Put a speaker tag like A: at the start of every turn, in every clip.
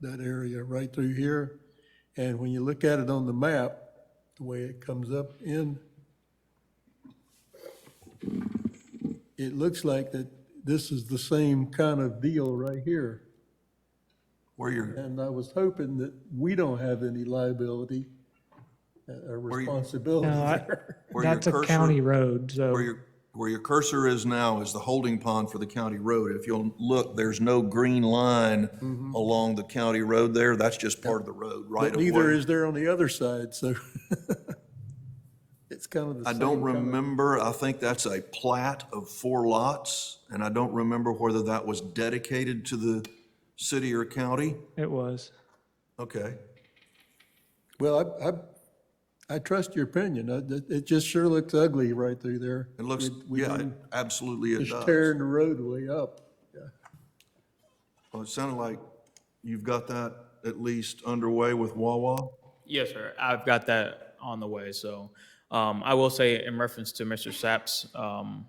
A: that area right through here. And when you look at it on the map, the way it comes up in, it looks like that this is the same kind of deal right here.
B: Where you're,
A: And I was hoping that we don't have any liability uh, or
B: you-
A: responsibility
C: No, I-
A: there.
B: where your
C: That's a
B: cursor,
C: county road,
B: where
C: so
B: your, where your cursor is now is the holding pond for the county road. If you'll look, there's no green line
C: Mm-hmm.
B: along the county road there. That's just part of the road, right
A: But
B: of
A: neither
B: way.
A: is there on the other side, so it's kind of the
B: I
A: same.
B: don't
A: kind of-
B: remember, I think that's a plat of four lots, and I don't remember whether that was dedicated to the city or county.
C: it was.
B: Okay.
A: Well, I, I, I trust your opinion. I- It it just sure looks ugly right through there.
B: It looks,
A: With- with
B: yeah, it-
A: them
B: absolutely it
A: Just
B: does.
A: tearing the roadway up. Yeah.
B: Well, it sounded like you've got that at least underway with Wawa.
D: Yes, sir. I've got that on the way. So um, I will say in reference to Mr. Sapp's um,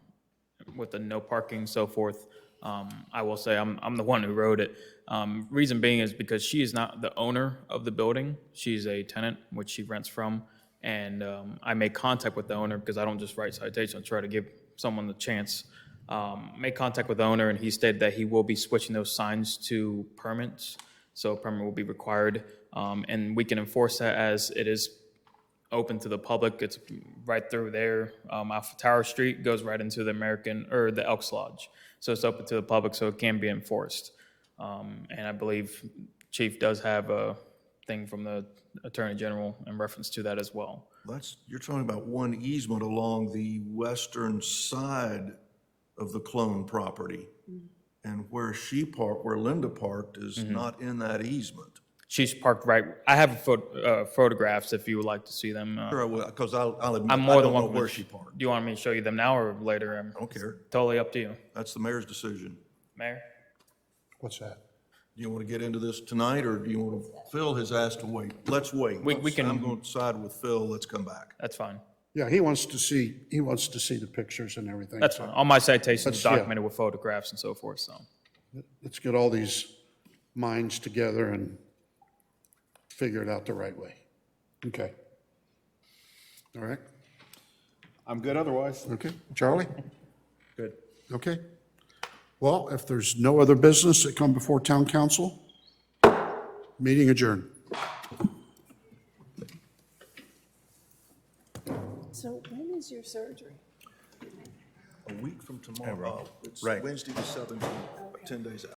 D: with the no parking, so forth, um, I will say I'm, I'm the one who wrote it. Um, Reason being is because she is not the owner of the building. She's a tenant, which she rents from. And um, I made contact with the owner because I don't just write citations, I try to give someone the chance. Um, Made contact with the owner and he stated that he will be switching those signs to permits. So a permit will be required. Um, And we can enforce that as it is open to the public. It's right through there, um, off of Tower Street, goes right into the American, or the Elks Lodge. So it's open to the public, so it can be enforced. Um, and I believe Chief does have a thing from the Attorney General in reference to that as well.
B: That's, you're talking about one easement along the western side of the clone property. And where she parked, where Linda parked is
D: Mm-hmm.
B: not in that easement.
D: She's parked right, I have phot- uh, photographs if you would like to see them. Uh,
B: Sure, I will, because I'll, I'll admit,
D: I'm
B: I
D: more than
B: don't know
D: welcome. to-
B: where she parked.
D: Do you want me to show you them now or later? Um,
B: I don't care.
D: Totally up to you.
B: That's the mayor's decision.
D: Mayor?
E: What's that?
B: Do you want to get into this tonight, or do you want to, Phil has asked to wait. Let's wait.
D: We- we can-
B: I'm going to side with Phil. Let's come back.
D: That's fine.
E: Yeah, he wants to see, he wants to see the pictures and everything.
D: That's fine. All my citations
E: yeah.
D: documented with photographs and so forth, so.
E: Let's get all these minds together and figure it out the right way. Okay. All right,
F: I'm good otherwise.
E: okay. Charlie?
D: Good.
E: Okay. Well, if there's no other business that come before town council, meeting adjourned.
G: So when is your surgery?
B: A week from tomorrow, it's Wednesday the 17th, 10 days out.